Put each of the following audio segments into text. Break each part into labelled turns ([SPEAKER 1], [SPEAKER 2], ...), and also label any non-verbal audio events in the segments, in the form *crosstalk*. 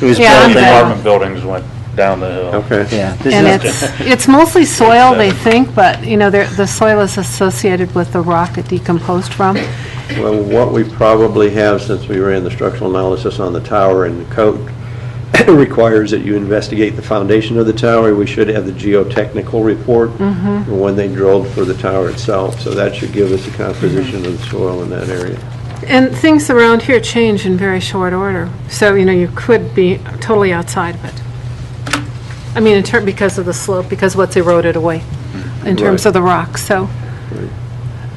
[SPEAKER 1] It was
[SPEAKER 2] Yeah.
[SPEAKER 1] built in,
[SPEAKER 3] Apartment buildings went down the hill.
[SPEAKER 4] Okay.
[SPEAKER 1] yeah. this
[SPEAKER 2] And
[SPEAKER 1] is-
[SPEAKER 2] it's, it's mostly soil, they think, but, you know, they're- the soil is associated with the rock it decomposed from.
[SPEAKER 4] Well, what we probably have, since we ran the structural analysis on the tower and the code *coughs* requires that you investigate the foundation of the tower, we should have the geotechnical report
[SPEAKER 2] Mm-hmm.
[SPEAKER 4] when they drilled for the tower itself. So that should give us a composition of the soil in that area.
[SPEAKER 2] And things around here change in very short order, so, you know, you could be totally outside of it. I mean, in term, because of the slope, because what's eroded away in terms
[SPEAKER 4] Right.
[SPEAKER 2] of the rock, so.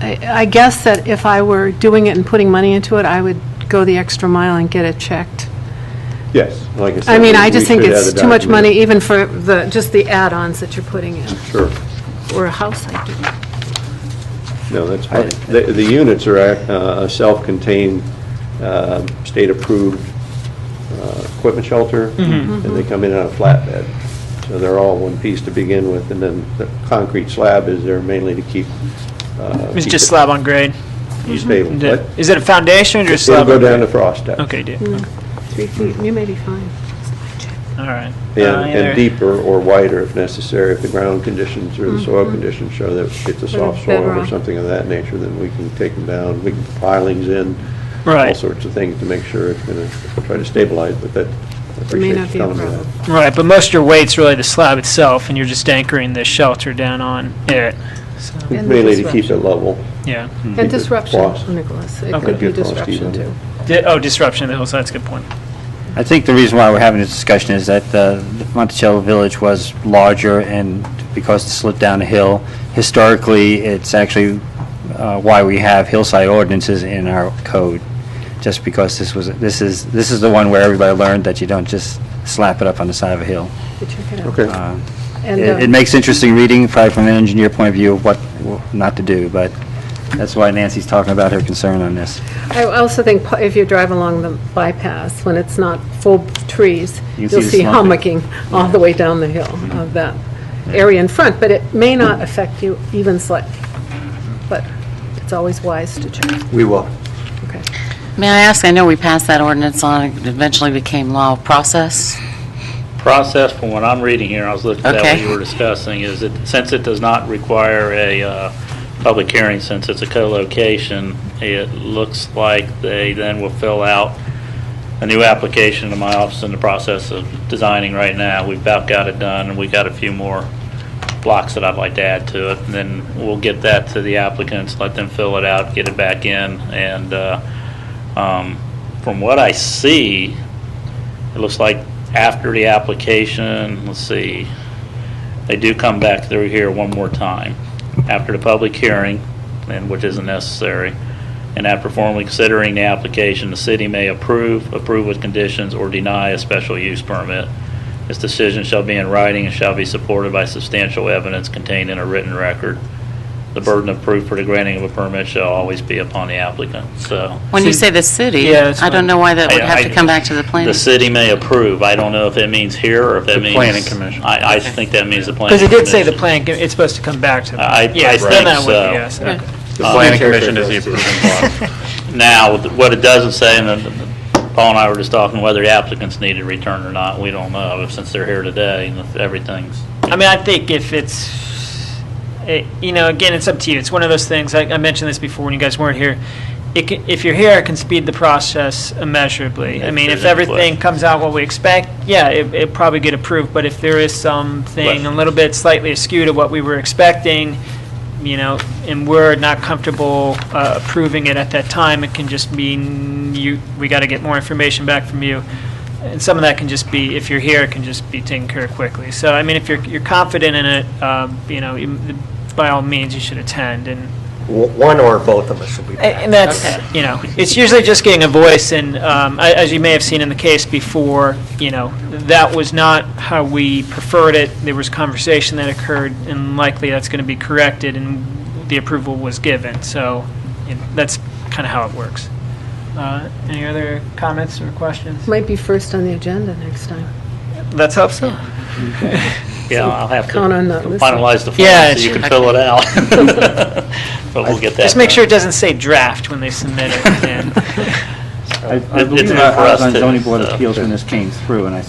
[SPEAKER 2] I I guess that if I were doing it and putting money into it, I would go the extra mile and get it checked.
[SPEAKER 4] Yes, like I said.
[SPEAKER 2] I mean, I
[SPEAKER 4] we-
[SPEAKER 2] just
[SPEAKER 4] we
[SPEAKER 2] think
[SPEAKER 4] should have
[SPEAKER 2] it's
[SPEAKER 4] the
[SPEAKER 2] too much money
[SPEAKER 4] document.
[SPEAKER 2] even for the, just the add-ons that you're putting in,
[SPEAKER 4] Sure.
[SPEAKER 2] or a house, I do.
[SPEAKER 4] No, that's fine. The, the units are uh, a self-contained, uh, state-approved uh, equipment shelter,
[SPEAKER 5] Mm-hmm.
[SPEAKER 4] and they come in on a flatbed. So they're all one piece to begin with, and then the concrete slab is there mainly to keep. uh,
[SPEAKER 5] It's
[SPEAKER 4] keep
[SPEAKER 5] just
[SPEAKER 4] it
[SPEAKER 5] slab on grade.
[SPEAKER 4] Stable.
[SPEAKER 5] Is
[SPEAKER 4] But
[SPEAKER 5] it- Is it a foundation or just
[SPEAKER 4] It'll
[SPEAKER 5] slab?
[SPEAKER 4] go
[SPEAKER 5] on
[SPEAKER 4] down to
[SPEAKER 5] grade?
[SPEAKER 4] frost depth.
[SPEAKER 5] Okay, dude,
[SPEAKER 2] Hmm. Three feet, you may be fine.
[SPEAKER 5] all right.
[SPEAKER 4] And
[SPEAKER 5] Uh, either-
[SPEAKER 4] and deeper or wider if necessary, if the ground conditions or the soil conditions show that it's a soft soil or
[SPEAKER 2] Mm-hmm. bedrock.
[SPEAKER 4] something of that nature, then we can take them down, we can put pilings in. All
[SPEAKER 5] Right.
[SPEAKER 4] sorts of things to make sure it's going to try to stabilize, but that, I appreciate
[SPEAKER 2] not
[SPEAKER 4] you
[SPEAKER 2] be a
[SPEAKER 4] telling me
[SPEAKER 2] problem.
[SPEAKER 4] that.
[SPEAKER 5] Right, but most of your weight's really the slab itself, and you're just anchoring the shelter down on it. So,
[SPEAKER 2] And the
[SPEAKER 4] Mainly to keep it
[SPEAKER 2] disruption.
[SPEAKER 4] level.
[SPEAKER 5] yeah.
[SPEAKER 2] And
[SPEAKER 4] Keep it lost.
[SPEAKER 2] disruption, Nicholas. It
[SPEAKER 5] Okay.
[SPEAKER 2] could be
[SPEAKER 4] Get lost
[SPEAKER 2] disruption,
[SPEAKER 4] even.
[SPEAKER 2] too.
[SPEAKER 5] Di- Oh, disruption of the hillside, that's a good point.
[SPEAKER 1] I think the reason why we're having this discussion is that uh, Monticello Village was larger, and because it sloped down a hill, historically, it's actually uh, why we have hillside ordinances in our code, just because this was, this is, this is the one where everybody learned that you don't just slap it up on the side of a hill.
[SPEAKER 2] But check it out.
[SPEAKER 4] Okay.
[SPEAKER 1] Uh,
[SPEAKER 2] And,
[SPEAKER 1] It it
[SPEAKER 2] uh,
[SPEAKER 1] makes interesting reading, probably from an engineer point of view, of what not to do, but that's why Nancy's talking about her concern on this.
[SPEAKER 2] I also think pu- if you drive along the bypass, when it's not full of trees,
[SPEAKER 1] You
[SPEAKER 2] you'll
[SPEAKER 1] can see the
[SPEAKER 2] see
[SPEAKER 1] slumping.
[SPEAKER 2] hummocking all the way down the hill
[SPEAKER 1] Mm-hmm.
[SPEAKER 2] of that area in front, but it may not affect you even slightly. But it's always wise to check.
[SPEAKER 4] We will.
[SPEAKER 2] Okay.
[SPEAKER 6] May I ask, I know we passed that ordinance on, it eventually became law of process.
[SPEAKER 3] Process, from what I'm reading here, I was looking at what
[SPEAKER 6] Okay.
[SPEAKER 3] you were discussing, is that since it does not require a uh, public hearing, since it's a co-location, it looks like they then will fill out a new application to my office in the process of designing right now. We've about got it done, and we got a few more blocks that I'd like to add to it. And then we'll get that to the applicants, let them fill it out, get it back in. And uh, um, from what I see, it looks like after the application, let's see, they do come back through here one more time, after the public hearing, and which isn't necessary. And after formally considering the application, the city may approve, approve with conditions, or deny a special use permit. This decision shall be in writing and shall be supported by substantial evidence contained in a written record. The burden of proof for the granting of a permit shall always be upon the applicant, so.
[SPEAKER 6] When you say the city,
[SPEAKER 5] Yeah, that's
[SPEAKER 6] I don't
[SPEAKER 5] fine.
[SPEAKER 6] know why that would have
[SPEAKER 3] I-
[SPEAKER 6] to come back to the planning.
[SPEAKER 3] The city may approve. I don't know if it means here or if that means.
[SPEAKER 7] planning commission.
[SPEAKER 3] I, I think that means the planning
[SPEAKER 5] Because it
[SPEAKER 3] commission. Uh,
[SPEAKER 5] did say the plan, co- it's supposed to come back to. the-
[SPEAKER 3] I- I
[SPEAKER 5] Yeah, it's done
[SPEAKER 3] think
[SPEAKER 5] that with,
[SPEAKER 3] so.
[SPEAKER 5] yes. okay.
[SPEAKER 7] The planning commission is the approving body.
[SPEAKER 3] *laughs*
[SPEAKER 5] *laughs*
[SPEAKER 3] Now, what it doesn't say, and then Paul and I were just talking whether the applicants need a return or not, we don't know, since they're here today and if everything's.
[SPEAKER 5] I mean, I think if it's, it, you know, again, it's up to you. It's one of those things. I, I mentioned this before when you guys weren't here. It can, if you're here, it can speed the process immeasurably. I
[SPEAKER 3] If
[SPEAKER 5] mean,
[SPEAKER 3] there's
[SPEAKER 5] if
[SPEAKER 3] any
[SPEAKER 5] everything
[SPEAKER 3] question.
[SPEAKER 5] comes out what we expect, yeah, it, it probably get approved. But if there is something a
[SPEAKER 3] Question.
[SPEAKER 5] little bit slightly askew to what we were expecting, you know, and we're not comfortable uh, approving it at that time, it can just mean you, we got to get more information back from you. And some of that can just be, if you're here, it can just be taken care of quickly. So, I mean, if you're, you're confident in it, um, you know, you- by all means, you should attend, and,
[SPEAKER 8] One or both of us will be back.
[SPEAKER 5] Eh, and that's, you know, it's usually just getting a voice, and um, a- as you may have seen in the case before, you know, that was not how we preferred it, there was conversation that occurred, and likely that's going to be corrected, and the approval was given, so you know, that's kind of how it works. Uh, Any other comments or questions?
[SPEAKER 2] Might be first on the agenda next time.
[SPEAKER 5] Let's hope so.
[SPEAKER 3] Yeah, I'll have to
[SPEAKER 2] Count on that list.
[SPEAKER 3] finalize the
[SPEAKER 5] Yeah,
[SPEAKER 3] form so you can fill it out.
[SPEAKER 5] *laughs*
[SPEAKER 3] *laughs* But we'll get that.
[SPEAKER 5] Just make
[SPEAKER 3] done.
[SPEAKER 5] *laughs* sure it doesn't say draft when they submit it. and-
[SPEAKER 1] I I
[SPEAKER 3] It's
[SPEAKER 1] believe
[SPEAKER 3] not for
[SPEAKER 1] I
[SPEAKER 3] us
[SPEAKER 1] was on
[SPEAKER 3] to-
[SPEAKER 1] zoning board
[SPEAKER 3] so-
[SPEAKER 1] appeals when this came through, and I